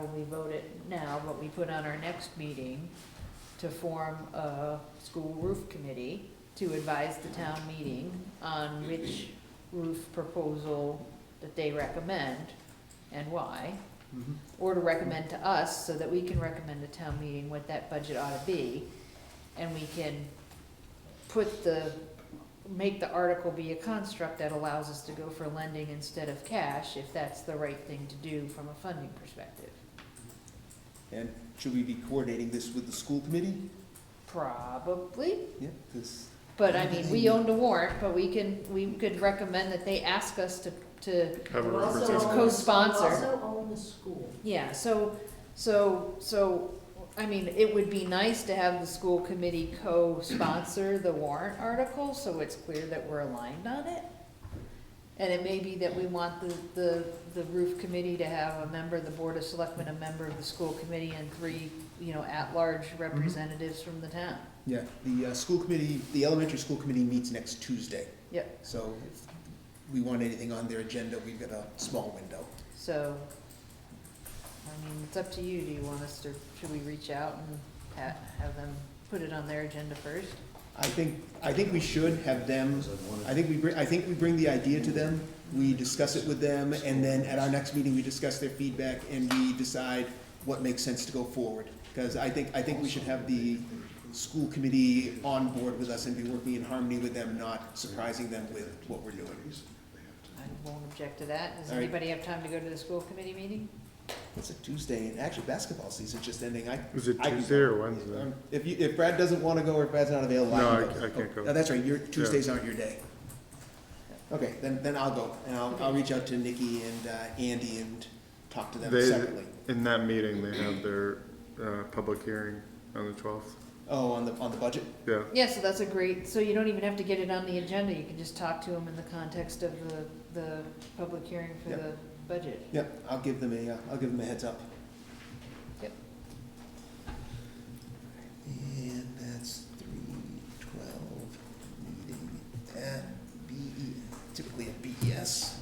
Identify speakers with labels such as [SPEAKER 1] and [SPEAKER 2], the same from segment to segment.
[SPEAKER 1] when we vote it now, but we put on our next meeting to form a school roof committee to advise the town meeting on which roof proposal that they recommend and why,
[SPEAKER 2] Mm-hmm.
[SPEAKER 3] Mhm.
[SPEAKER 1] or to recommend to us so that we can recommend to town meeting what that budget ought to be. And we can put the, make the article be a construct that allows us to go for lending instead of cash if that's the right thing to do from a funding perspective.
[SPEAKER 3] And should we be coordinating this with the school committee?
[SPEAKER 1] Probably,
[SPEAKER 3] Yeah, because,
[SPEAKER 1] but I mean, we owned a warrant, but we can, we could recommend that they ask us to, to
[SPEAKER 2] Have a
[SPEAKER 4] You also
[SPEAKER 1] It's
[SPEAKER 4] own-
[SPEAKER 2] representative.
[SPEAKER 1] co-sponsor.
[SPEAKER 4] you also own the school.
[SPEAKER 1] Yeah, so, so, so, I mean, it would be nice to have the school committee co-sponsor the warrant article, so it's clear that we're aligned on it. And it may be that we want the, the, the roof committee to have a member of the board of selectmen, a member of the school committee, and three, you know, at-large representatives from the town.
[SPEAKER 3] yeah, the uh, school committee, the elementary school committee meets next Tuesday.
[SPEAKER 1] Yep.
[SPEAKER 3] So if we want anything on their agenda, we've got a small window.
[SPEAKER 1] So, I mean, it's up to you, do you want us to, should we reach out and ha- have them put it on their agenda first?
[SPEAKER 3] I think, I think we should have them, I think we bring, I think we bring the idea to them, we discuss it with them, and then at our next meeting, we discuss their feedback and we decide what makes sense to go forward. Because I think, I think we should have the school committee on board with us and be working in harmony with them, not surprising them with what we're doing.
[SPEAKER 1] I won't object to that. Does
[SPEAKER 3] All right.
[SPEAKER 1] anybody have time to go to the school committee meeting?
[SPEAKER 3] It's a Tuesday, and actually basketball season's just ending, I.
[SPEAKER 2] Is it
[SPEAKER 3] I can
[SPEAKER 2] Tuesday or
[SPEAKER 3] go.
[SPEAKER 2] Wednesday?
[SPEAKER 3] Um, If you, if Brad doesn't wanna go or if Brad's not available, I
[SPEAKER 2] uh, No,
[SPEAKER 3] can
[SPEAKER 2] I-
[SPEAKER 3] go.
[SPEAKER 2] I can't
[SPEAKER 3] Oh,
[SPEAKER 2] go.
[SPEAKER 3] No, that's right, your, Tuesdays aren't your day. Okay, then, then I'll go, and I'll, I'll reach out to Nikki and, uh, Andy and talk to them
[SPEAKER 2] They-
[SPEAKER 3] separately.
[SPEAKER 2] In that meeting, they have their, uh, public hearing on the twelfth,
[SPEAKER 3] Oh, on the, on the budget?
[SPEAKER 2] yeah.
[SPEAKER 1] Yeah, so that's a great, so you don't even have to get it on the agenda. You can just talk to them in the context of the, the public hearing for
[SPEAKER 3] Yep.
[SPEAKER 1] the budget.
[SPEAKER 3] Yep, I'll give them a, uh, I'll give them a heads up.
[SPEAKER 1] Yep.
[SPEAKER 3] And that's three twelve meeting at B, E typically at E BES.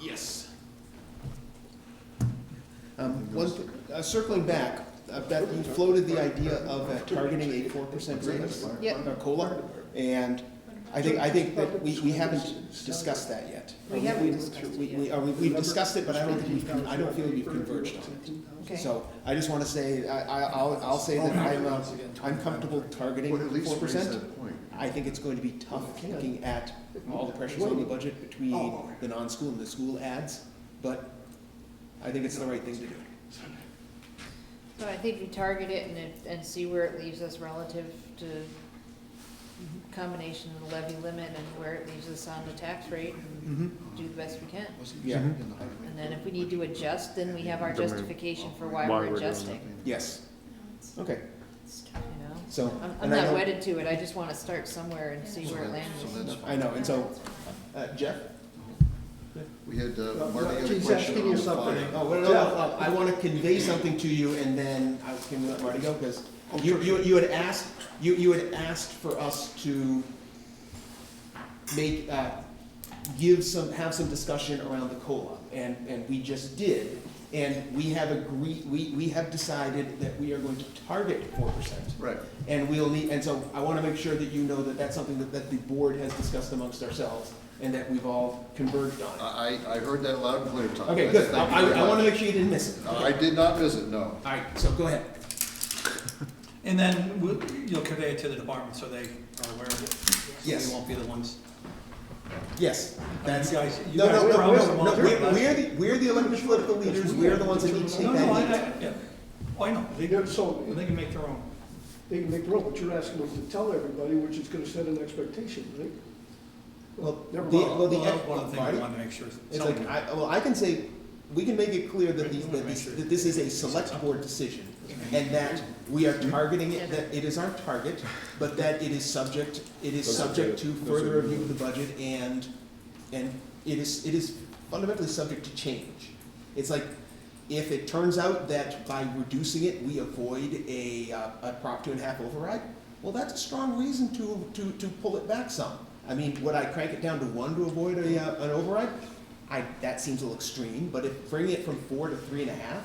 [SPEAKER 3] Yes. Um, one, uh, circling back, uh, that you floated the idea of uh, targeting a four percent raise on
[SPEAKER 1] Yep.
[SPEAKER 3] our COLA. And I think, I think that we, we haven't discussed that yet.
[SPEAKER 1] We haven't discussed it
[SPEAKER 3] We,
[SPEAKER 1] yet.
[SPEAKER 3] we, uh, we- we've discussed it, but I don't think we've, con- I don't feel we've converged on it.
[SPEAKER 1] Okay,
[SPEAKER 3] So I just wanna say, I, I, I'll, I'll say that I'm, uh, I'm comfortable targeting
[SPEAKER 5] Would at least
[SPEAKER 3] four
[SPEAKER 5] raise
[SPEAKER 3] percent.
[SPEAKER 5] that point.
[SPEAKER 3] I think it's going to be tough looking at all the pressures on the budget between
[SPEAKER 5] Oh.
[SPEAKER 3] the non-school and the school ads, but I think it's the right thing to do.
[SPEAKER 1] so I think we target it and, it- and see where it leaves us relative to combination of the levy limit and where it leaves us on the tax rate and
[SPEAKER 3] Mm-hmm.
[SPEAKER 1] do the best we can.
[SPEAKER 3] Yeah.
[SPEAKER 5] Mm-hmm.
[SPEAKER 1] And then if we need to adjust, then we have our
[SPEAKER 2] Then we-
[SPEAKER 1] justification for why
[SPEAKER 2] Why
[SPEAKER 1] we're
[SPEAKER 2] we're doing it.
[SPEAKER 1] adjusting,
[SPEAKER 3] Yes, okay,
[SPEAKER 1] you know?
[SPEAKER 3] so.
[SPEAKER 1] I'm, I'm
[SPEAKER 3] and I
[SPEAKER 1] not
[SPEAKER 3] know-
[SPEAKER 1] wedded to it. I just wanna start somewhere and see where it lands.
[SPEAKER 3] I know, and so, uh, Jeff?
[SPEAKER 5] We had, uh, Marty had a
[SPEAKER 3] He's asking
[SPEAKER 5] question
[SPEAKER 3] you
[SPEAKER 5] on
[SPEAKER 3] something.
[SPEAKER 5] fire.
[SPEAKER 3] Oh, wait, no, no, no, I want to convey something to you and then I can let Marty go because you, you, you had asked, you, you had asked for us to make, uh, give some, have some discussion around the COLA and, and we just did. And we have agreed, we, we have decided that we are going to target four percent.
[SPEAKER 5] Right,
[SPEAKER 3] And we'll need, and so I want to make sure that you know that that's something that, that the board has discussed amongst ourselves and that we've all converged on.
[SPEAKER 5] I, I I heard that loud and clear, Tom.
[SPEAKER 3] Okay,
[SPEAKER 5] That's-
[SPEAKER 3] good.
[SPEAKER 5] thank
[SPEAKER 3] I,
[SPEAKER 5] you very
[SPEAKER 3] I want to
[SPEAKER 5] much. Uh,
[SPEAKER 3] make sure you didn't miss it.
[SPEAKER 5] I did not visit, no.
[SPEAKER 3] All right, so go ahead.
[SPEAKER 6] And then we'll- you'll convey it to the department so they are aware of it. So
[SPEAKER 3] Yes.
[SPEAKER 6] We won't be the ones.
[SPEAKER 3] Yes, that's.
[SPEAKER 6] You guys- you
[SPEAKER 3] No,
[SPEAKER 6] guys
[SPEAKER 3] no, no,
[SPEAKER 6] promised
[SPEAKER 3] no,
[SPEAKER 6] them
[SPEAKER 3] no,
[SPEAKER 6] all
[SPEAKER 3] We're,
[SPEAKER 6] the-
[SPEAKER 3] we're the, we're the elected political leaders. We're the ones that need to take
[SPEAKER 6] No, no, I,
[SPEAKER 3] that.
[SPEAKER 6] I, yeah. Oh, I know. They,
[SPEAKER 7] They got, so,
[SPEAKER 6] they can make their own.
[SPEAKER 7] they can make their own, but you're asking them to tell everybody, which is gonna set an expectation, right?
[SPEAKER 3] Well, the,
[SPEAKER 7] Never mind.
[SPEAKER 3] well,
[SPEAKER 6] Well, that's
[SPEAKER 3] the.
[SPEAKER 6] one of the things we
[SPEAKER 3] Marty?
[SPEAKER 6] wanted to make sure. is
[SPEAKER 3] It's
[SPEAKER 6] someone-
[SPEAKER 3] like, I, well, I can say, we can make it clear that these,
[SPEAKER 6] Right,
[SPEAKER 3] that
[SPEAKER 6] make
[SPEAKER 3] this,
[SPEAKER 6] sure.
[SPEAKER 3] that this is a select board decision, and that we
[SPEAKER 6] Mm-hmm.
[SPEAKER 3] are targeting it, that it is our target, but that it is subject, it is subject to further review of the budget, and, and it is, it is fundamentally subject to change. It's like, if it turns out that by reducing it, we avoid a, uh, a Prop two and a half override, well, that's a strong reason to, to, to pull it back some. I mean, would I crank it down to one to avoid a, uh, an override? I, that seems a little extreme, but if, bringing it from four to three and a half,